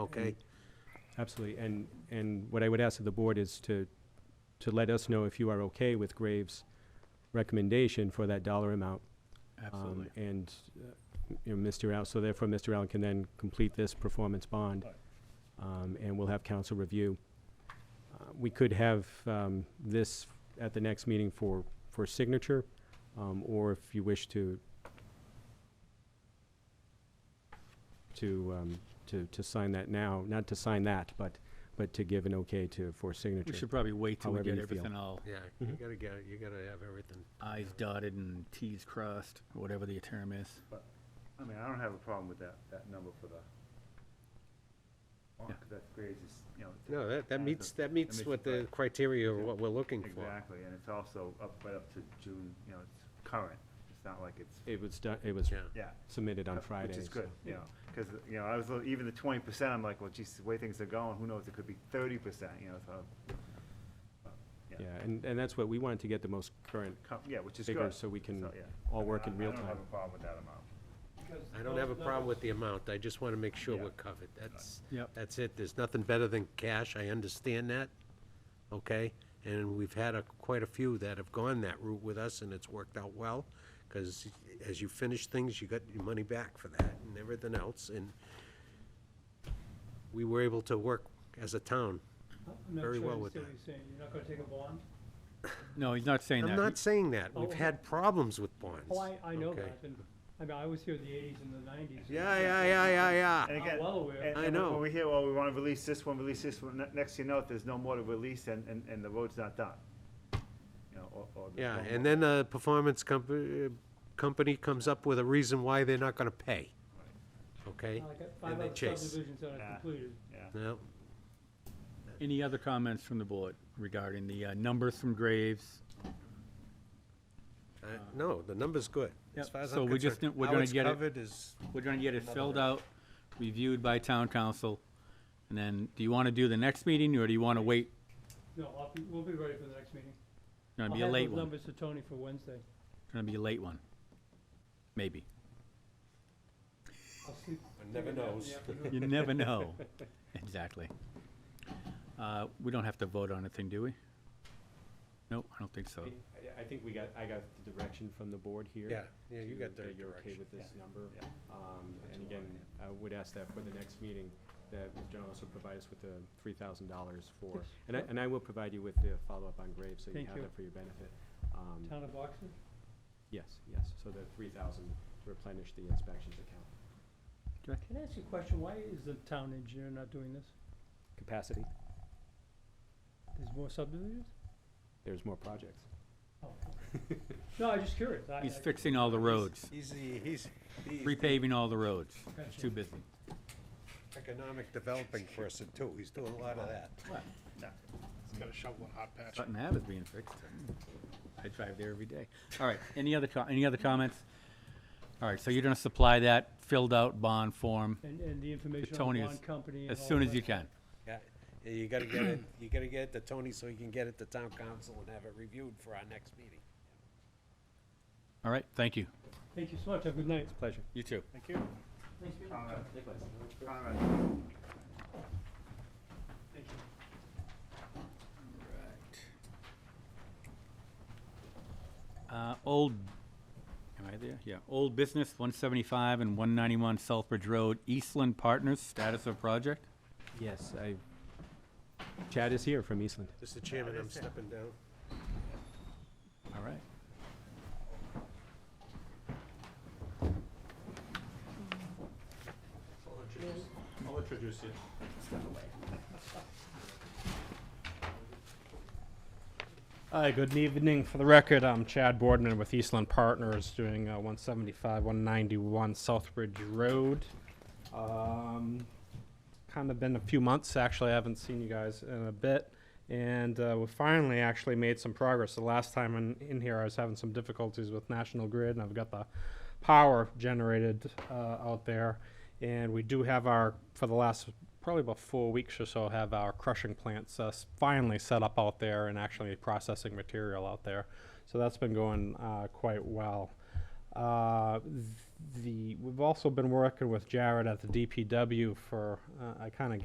okay? Absolutely, and, and what I would ask of the board is to, to let us know if you are okay with Graves' recommendation for that dollar amount. um, Absolutely. And, uh, you know, Mr. Allen, so therefore, Mr. Allen can then complete this performance bond, Right. um, and we'll have council review. Uh, We could have um, this at the next meeting for, for signature, um, or if you wish to, to, um, to, to sign that now, not to sign that, but, but to give an okay to, for signature. We should probably wait till we However get you feel. everything all Yeah, you gotta get, it. you gotta have everything. I's dotted and T's crossed, or whatever the term is. I mean, I don't have a problem with that, that number for the, Yeah. because that grades is, you know. No, that, that has meets, a- that meets makes what it the right. criteria of what we're looking for. Exactly, and it's also up, right up to June, you know, it's current, it's not like it's, It was done, it was Yeah. yeah. submitted on uh, Friday. Which is so- good, you know, because, you know, I was, li- even the twenty percent, I'm like, well, geez, the way things are going, who knows, it could be thirty percent, you know, so. yeah. Yeah, and, and that's what, we wanted to get the most current com- Yeah, which is good. figures so we can So, yeah. all work I- in real I don't have time. a problem with that amount. I don't have a problem with the amount, I just wanna make sure we're covered, that's, Yep. that's it, there's nothing better than cash, I understand that, okay? And we've had a, quite a few that have gone that route with us, and it's worked out well, because as you finish things, you got your money back for that and everything else, and we were able to work as a town. very well with I'm not sure I understand what you're saying, you're not gonna take a bond? No, he's not saying that. I'm He- not saying that, Oh, we've okay. had problems with bonds. Oh, I, I know okay? that, and, I mean, I was here in the eighties and the nineties. Yeah, yeah, yeah, yeah, yeah. And I'm again, well aware. and- I and know. When we hear, well, we wanna release this one, release this one, ne- next thing you know, if there's no more to release and, and, and the road's not done. You know, or, or. there's Yeah, no and more. then the performance company, company comes up with a reason why they're not gonna pay. Okay? Like, uh, And five they other chase. subdivisions that Yeah. I've completed. Yeah, No, Any other comments from the board regarding the uh, numbers from Graves? I- no, the number's good. As Yep. far as So I'm we just concerned, need- we're how gonna it's get it- covered is- We're gonna get it filled out, reviewed by town council, and then, do you wanna do the next meeting, or do you wanna wait? No, I'll be, we'll be ready for the next meeting. Gonna be a late I'll have one, those numbers to Tony for Wednesday. gonna be a late one, maybe. I'll sleep. One never take a nap in the knows. afternoon. You never know. Exactly. Uh, we don't have to vote on anything, do we? Nope, I don't think so. I- I think we got, I got the direction from the board here. Yeah, yeah, you to- got the that You're okay direction. with this number. yeah. Um, And again, I would ask that for the next meeting, that Mr. Allen also provide us with the three thousand dollars for, Yes. and I, and I will provide you with the follow-up on Graves, so you Thank have you. that for your benefit. Um, Town of Oxford? Yes, yes, so the three thousand to replenish the inspections account Can I ask you a question? Why is the town engineer not doing this? capacity. There's more subdivisions? There's more projects. Oh. No, I'm just curious. I- He's I- fixing all the roads, He's, the- he's the repaving all the roads. It's Gotcha. too busy. economic developing person too, he's doing a lot of that. Sutton Ave is being fixed. Hmm. I drive there every day. All right, any other, co- any other comments? All right, so you're gonna supply that filled out bond form And, and the information on Tony the as- bond company and as all soon of as that. you can. Yeah, yeah, you gotta get it, you gotta get it to Tony so he can get it to town council and have it reviewed for our next meeting. All right, thank you. Thank you so much. Have a good night. Pleasure. You too. thank you. Conrad. Conrad. Uh, old, am I there? Yeah, old business, one seventy-five and one ninety-one Southbridge Road, Eastland Partners, status of project? Yes, I, Chad is here from Eastland. Mr. Chairman, I'm stepping down. All right. I'll introduce you. Hi, good evening. For the record, I'm Chad Boardman with Eastland Partners, doing uh, 175, 191 Southbridge Road. Um, kind of been a few months, actually, I haven't seen you guys in a bit. And uh, we finally actually made some progress. The last time in, in here, I was having some difficulties with National Grid, and I've got the power generated uh, out there. And we do have our, for the last probably about four weeks or so, have our crushing plants uh, s- finally set up out there and actually processing material out there. So that's been going uh, quite well. Uh, th- the we've also been working with Jared at the DPW for uh, I kind of